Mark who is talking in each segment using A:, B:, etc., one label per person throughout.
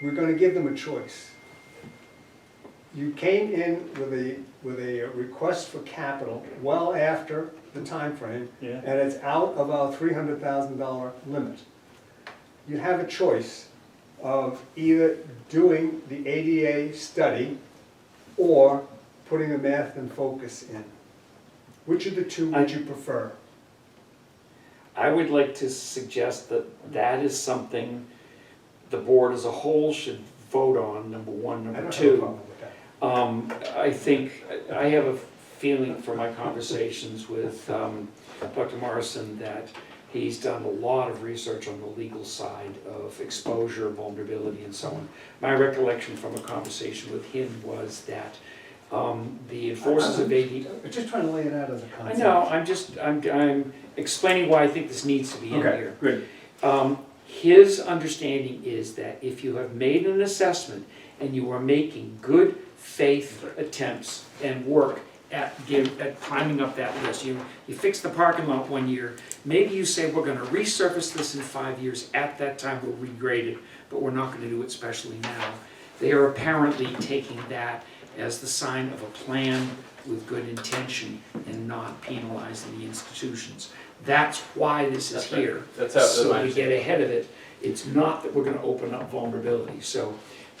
A: we're gonna give them a choice. You came in with a, with a request for capital well after the time frame,
B: Yeah,
A: and it's out of our three hundred thousand dollar limit. You have a choice of either doing the ADA study or putting the math and focus in. Which of the two would you prefer?
C: I would like to suggest that that is something the board as a whole should vote on, number one.
A: I
C: Number
A: don't have a
C: two,
A: problem with that.
C: um, I think, I have a feeling from my conversations with, um, Dr. Morrison that he's done a lot of research on the legal side of exposure, vulnerability and so on. My recollection from a conversation with him was that, um, the enforcers of AD.
A: I'm Just trying to lay it out as a
C: I
A: concept.
C: know, I'm just, I'm, I'm explaining why I think this needs to be in here.
B: okay, good.
C: Um, his understanding is that if you have made an assessment and you are making good faith attempts and work at give, at climbing up that list, you, you fix the parking lot one year, maybe you say, we're gonna resurface this in five years, at that time we'll regrade it, but we're not gonna do it specially now. They are apparently taking that as the sign of a plan with good intention and not penalizing the institutions. That's why this is
D: That's right.
C: here.
D: That's how, that's my
C: So we get
D: understanding.
C: ahead of it, it's not that we're gonna open up vulnerability, so,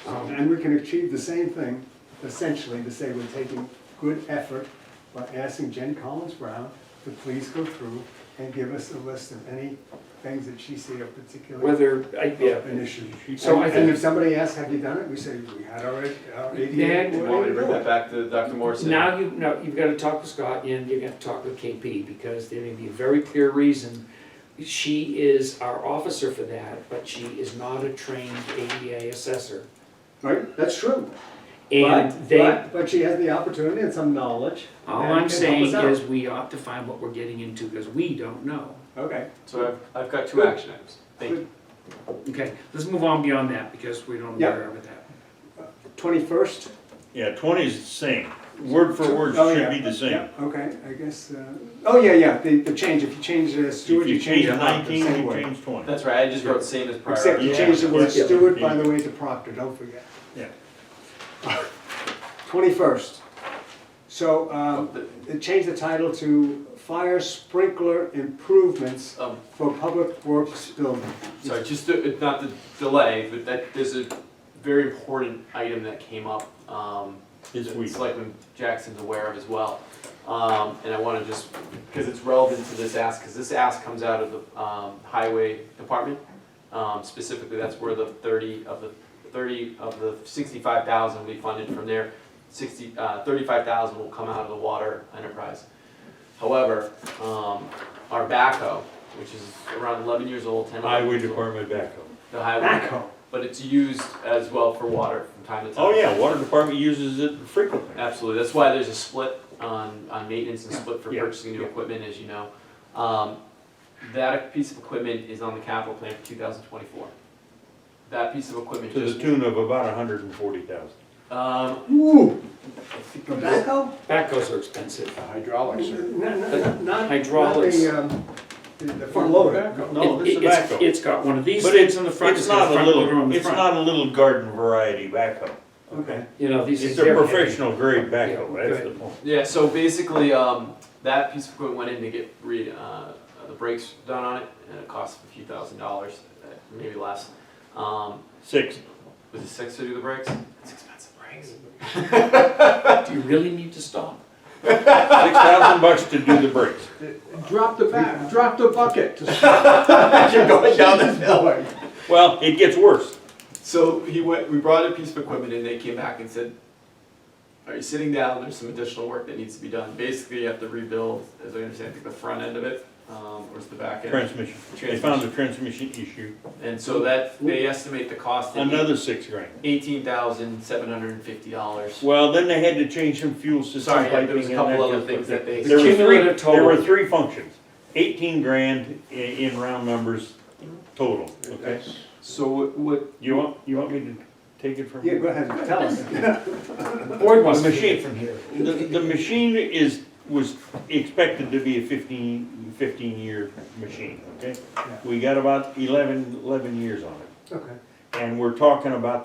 C: um,
A: And we can achieve the same thing, essentially, to say we're taking good effort by asking Jen Collins Brown to please go through and give us a list of any things that she see are particularly
C: whether, I, yeah.
A: an issue.
C: So I
A: And
C: think-
A: if somebody asks, have you done it, we say, we had our, our ADA.
C: Then
A: board
D: Do you want me to bring
A: do
D: that
A: it."
D: back to Dr. Morrison?
C: Now you, no, you've gotta talk with Scott and you're gonna talk with KP, because there may be a very clear reason. She is our officer for that, but she is not a trained ADA assessor.
A: Right, that's true.
C: And
A: But-
C: they,
A: But but she has the opportunity and some knowledge. and
C: all
A: can help
C: I'm
A: us
C: saying
A: out.
C: is we ought to find what we're getting into, because we don't know.
A: Okay,
D: So I've, I've got two action items. Thank you.
C: Okay, let's move on beyond that, because we don't know
A: Yep.
C: where with that.
A: twenty-first?
B: Yeah, twenty is the same, word for word
A: Oh,
B: should
A: yeah.
B: be the same.
A: Okay, I guess, uh, oh, yeah, yeah, the, the change, if you change the
B: If
A: steward, you change the hot, the
B: nineteen,
A: same
B: you
A: way.
B: change twenty.
D: That's right, I just wrote same as prior.
A: Except you
B: Yeah.
A: change the word
B: Yeah.
A: steward, by the way, to proctor, don't forget.
B: Yeah.
A: Twenty-first. So, um,
D: The-
A: it changed the title to fire sprinkler improvements
D: Um,
A: for public works building.
D: sorry, just to, not to delay, but that, there's a very important item that came up, um,
B: This
D: that
B: week.
D: Selectman Jackson's aware of as well. Um, and I wanna just, because it's relevant to this ask, because this ask comes out of the, um, highway department. Um, specifically, that's where the thirty of the, thirty of the sixty-five thousand we funded from there, sixty, uh, thirty-five thousand will come out of the water enterprise. However, um, our backhoe, which is around eleven years old, ten. 11
B: Highway
D: years old,
B: department backup.
D: The highway,
A: Backhoe.
D: but it's used as well for water from time to time.
B: Oh, yeah, water department uses it frequently.
D: Absolutely, that's why there's a split on, on maintenance and split for
B: Yeah.
D: purchasing new equipment, as you know. Um, That piece of equipment is on the capital plan for two thousand twenty-four. That piece of equipment
B: To the
D: just,
B: tune of about a hundred and forty thousand.
D: um,
A: Ooh,
D: I think it was-
A: tobacco?
C: Backhoes are expensive.
A: Hydraulics. Not, not, not
C: Hydraulics.
A: the, um, the- the front loader.
B: No,
C: It-
B: this is
C: it- it's-
B: tobacco.
C: It's got one of these
B: But it-
C: things on the front, it's
B: It's
C: got
B: not
C: a
B: a
C: front loader on
B: little,
C: the
B: it's
C: front.
B: not a little garden variety backhoe.
A: Okay.
C: You know, these
B: It's
C: things.
B: a
C: they're heavy.
B: professional grade backhoe,
C: Yeah,
B: that's the
C: good.
B: point.
D: Yeah, so basically, um, that piece of equipment went in to get re, uh, the brakes done on it, and it cost a few thousand dollars, uh, maybe less. Um,
B: Six,
D: was it six to do the brakes? It's expensive brakes.
C: Do you really need to stop?
B: six thousand bucks to do the brakes.
E: Drop the back, drop the bucket.
D: You're going down this hill.
B: Well, it gets worse.
D: So he went, we brought a piece of equipment and they came back and said, are you sitting down? There's some additional work that needs to be done. Basically, you have to rebuild, as I understand, I think the front end of it, um, or is the back end?
B: Transmission. They found a transmission issue,
D: And so that, they estimate the cost at
B: another six grand.
D: eighteen thousand seven hundred and fifty dollars.
B: Well, then they had to change some fuel system
D: Sorry, yeah,
B: piping.
D: there was a
B: and
D: couple
B: that
D: other
B: kind of
D: things
B: stuff.
D: that they-
B: There were three-
C: Cumulative
B: There were
C: total.
B: three functions, eighteen grand i- in round numbers total, okay?
D: So what, what,
B: You want, you want me to take it from
A: Yeah,
B: here?
A: go ahead, tell us.
C: The board wants
B: The
C: to take it
B: machine.
C: from here.
B: The, the machine is, was expected to be a 15 15-year machine, okay?
A: Yeah.
B: We got about 11 11 years on it,
A: Okay.
B: and we're talking about